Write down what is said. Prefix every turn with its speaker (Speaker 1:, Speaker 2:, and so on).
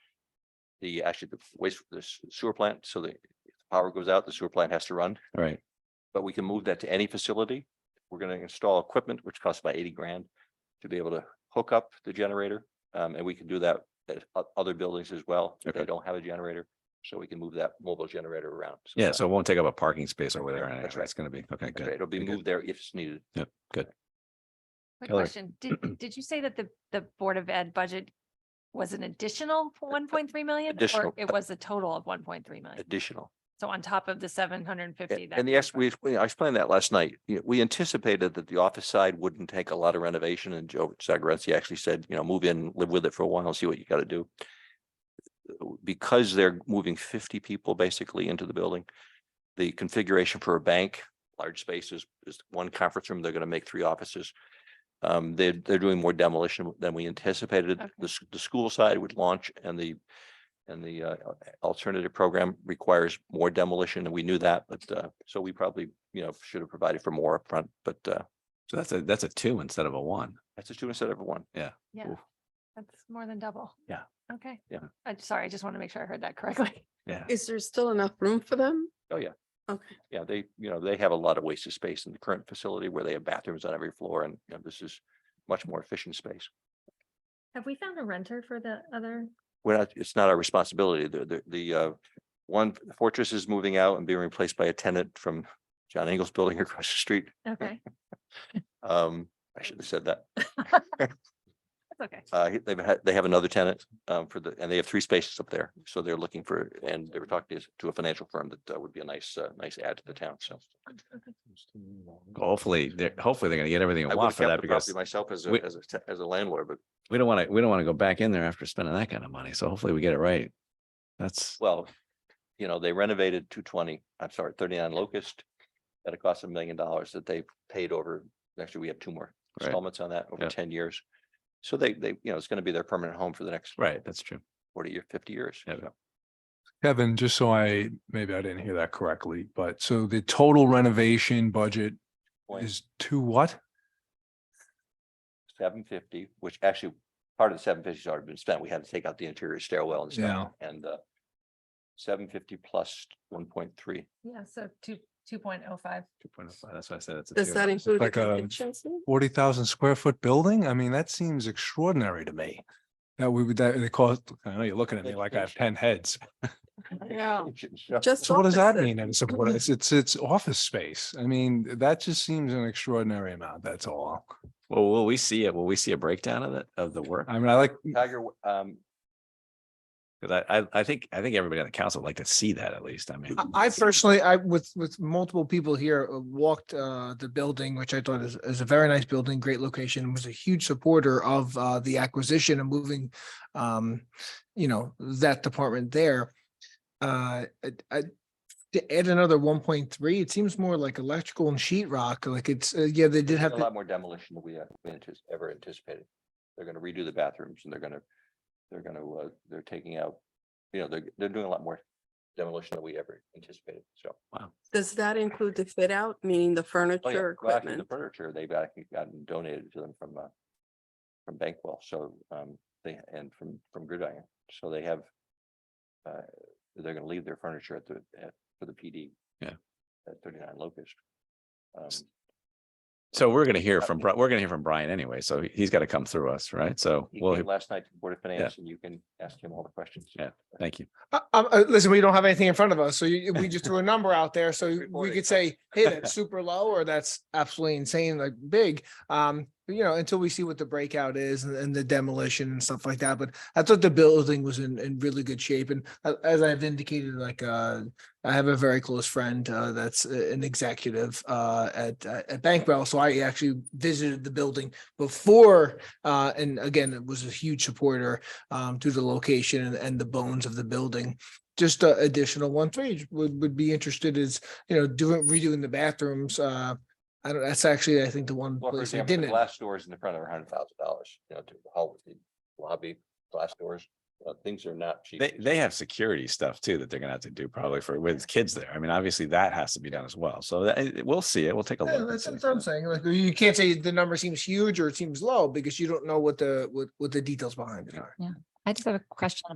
Speaker 1: the, actually the waste, the s- sewer plant, so the if the power goes out, the sewer plant has to run,
Speaker 2: Right.
Speaker 1: but we can move that to any facility. We're gonna install equipment, which costs about eighty grand to be able to hook up the generator. Um, and we can do that at o- other buildings as well. if They
Speaker 2: Okay.
Speaker 1: don't have a generator, so we can move that mobile generator around.
Speaker 2: Yeah.
Speaker 1: that-
Speaker 2: So it won't take up a parking space over there.
Speaker 1: Yeah,
Speaker 2: anyway.
Speaker 1: that's right.
Speaker 2: It's going to be, okay,
Speaker 1: that's
Speaker 2: good.
Speaker 1: right, It'll be
Speaker 2: Very good.
Speaker 1: moved there if it's needed.
Speaker 3: Quick
Speaker 2: Kelly.
Speaker 3: question. Did, did you say that the, the Board of Ed budget was an additional one point three million?
Speaker 1: Additional. uh,
Speaker 3: Or it was a total of one point three million?
Speaker 1: Additional.
Speaker 3: So on top of the seven hundred and fifty?
Speaker 1: And the yes, we, we- I explained that last night. You know, We anticipated that the office side wouldn't take a lot of renovation and Joe Zagorensky actually said, you know, move in, live with it for a while, see what you gotta do. Because they're moving fifty people basically into the building, the configuration for a bank, large spaces, is one conference room, they're gonna make three offices. Um, they're, they're doing more demolition than we anticipated.
Speaker 3: Okay.
Speaker 1: The, s- the school side would launch and the and the uh, alternative program requires more demolition, and we knew that, but uh, so we probably, you know, should have provided for more upfront, but uh,
Speaker 2: So that's a, that's a two instead of a one.
Speaker 1: that's a two instead of a one.
Speaker 3: Yeah,
Speaker 2: Oof.
Speaker 3: that's more than double.
Speaker 2: Yeah.
Speaker 3: Okay.
Speaker 1: Yeah.
Speaker 3: I'm sorry, I just want to make sure I heard that correctly.
Speaker 2: Yeah.
Speaker 4: Is there still enough room for them?
Speaker 1: Oh, yeah.
Speaker 4: Okay,
Speaker 1: Yeah, they, you know, they have a lot of wasted space in the current facility where they have bathrooms on every floor, and you know, this is much more efficient space.
Speaker 3: Have we found a renter for the other?
Speaker 1: We're not, it's not our responsibility. The, the, the uh, one Fortress is moving out and being replaced by a tenant from John Engel's building across the street.
Speaker 3: Okay,
Speaker 1: Um, I should have said that.
Speaker 3: that's okay.
Speaker 1: Uh, he- they've had, they have another tenant, um, for the, and they have three spaces up there, so they're looking for, and they were talking to- to a financial firm that uh, would be a nice, uh, nice add to the town, so.
Speaker 2: Hopefully, they're, hopefully they're going to get everything
Speaker 1: I
Speaker 2: they
Speaker 1: would
Speaker 2: want
Speaker 1: have
Speaker 2: for
Speaker 1: kept the
Speaker 2: that because
Speaker 1: property myself as
Speaker 2: we-
Speaker 1: a, as a, te- as a landlord, but,
Speaker 2: we don't want to, we don't want to go back in there after spending that kind of money. So hopefully we get it right. That's,
Speaker 1: well, you know, they renovated two twenty, I'm sorry, thirty-nine Locust at a cost of a million dollars that they paid over, actually, we have two more
Speaker 2: Right.
Speaker 1: installments on that over
Speaker 2: Yeah.
Speaker 1: ten years. So they, they, you know, it's gonna be their permanent home for the next
Speaker 2: right. That's true.
Speaker 1: forty or fifty years.
Speaker 2: Yeah.
Speaker 1: so.
Speaker 5: Kevin, just so I, maybe I didn't hear that correctly, but so the total renovation budget
Speaker 1: Point-
Speaker 5: is to what?
Speaker 1: seven fifty, which actually part of the seven fifty's already been spent. We had to take out the interior stairwell and stuff and uh. Seven fifty plus one point three.
Speaker 3: Yeah, so two, two point oh five.
Speaker 2: 2.05. That's why I said it's a
Speaker 4: does
Speaker 2: two.
Speaker 4: that include
Speaker 5: like um, a-
Speaker 4: contingency?
Speaker 5: Forty thousand square foot building? I mean, that seems extraordinary to me. That we would, that they cost, I know you're looking at me like I have ten heads.
Speaker 4: Yeah.
Speaker 1: Just
Speaker 4: Just.
Speaker 5: So what does that
Speaker 4: offices.
Speaker 5: mean? And so what is, it's, it's office space. I mean, that just seems an extraordinary amount, that's all.
Speaker 2: Well, will we see it? Will we see a breakdown of it, of the
Speaker 1: Uh,
Speaker 2: work?
Speaker 5: I mean, I like,
Speaker 1: Tiger, um,
Speaker 2: Because I, I, I think, I think everybody on the council would like to see that at least. I mean.
Speaker 6: I- I personally, I with with multiple people here uh, walked uh the building, which I thought is is a very nice building, great location, was a huge supporter of uh the acquisition and moving um, you know, that department there. Uh, I, I to add another one point three, it seems more like electrical and sheet rock, like it's, uh, yeah, they did
Speaker 1: a
Speaker 6: have. to-
Speaker 1: lot more demolition than we had we antis- ever anticipated. They're gonna redo the bathrooms and they're gonna, they're gonna, uh, they're taking out, you know, they're, they're doing a lot more demolition than we ever anticipated, so.
Speaker 4: Does that include the fit out, meaning the
Speaker 1: Oh, yeah,
Speaker 4: furniture,
Speaker 1: well, actually,
Speaker 4: equipment?
Speaker 1: The furniture, they've actually gotten donated to them from, uh, from Bankwell, so, um, they, and from, from Gridiron, so they have. Uh, they're gonna leave their furniture at the, at, for the PD.
Speaker 2: Yeah.
Speaker 1: At thirty-nine Locust. Um,
Speaker 2: So we're gonna hear
Speaker 1: Uh,
Speaker 2: from, Bri- we're gonna hear from Brian anyway, so he- he's gotta come through us, right? So,
Speaker 1: he
Speaker 2: well,
Speaker 1: came last night to the Board of Finance, and you can ask him all the questions.
Speaker 2: Yeah. thank you.
Speaker 6: Uh, um, uh, listen, we don't have anything in front of us, so you, we just threw a number out there, so we
Speaker 1: Reporting.
Speaker 6: could say, hey, that's super low, or that's absolutely insane, like big. Um, you know, until we see what the breakout is and, and the demolition and stuff like that, but I thought the building was in, in really good shape, and a- as I've indicated, like, uh, I have a very close friend, uh, that's a- an executive, uh, at, uh, at Bankwell, so I actually visited the building before, uh, and again, it was a huge supporter, um, to the location and, and the bones of the building. Just uh, additional one three would, would be interested is, you know, doing, redoing the bathrooms. Uh, I don't, that's actually, I think the one
Speaker 1: Well, for
Speaker 6: place I
Speaker 1: example, the
Speaker 6: didn't.
Speaker 1: glass doors in the front are hundred thousand dollars, you know, to the hall, the lobby, glass doors, uh, things are not cheap.
Speaker 2: They, they have security stuff too that they're gonna have to do probably for, with kids there. I mean, obviously that has to be done as well. So that, it- we'll see it. We'll take a
Speaker 6: Yeah,
Speaker 2: look. and
Speaker 6: that's
Speaker 2: see.
Speaker 6: what I'm saying. Like, you can't say the number seems huge or it seems low because you don't know what the, what, what the details behind it are.
Speaker 3: I just have a question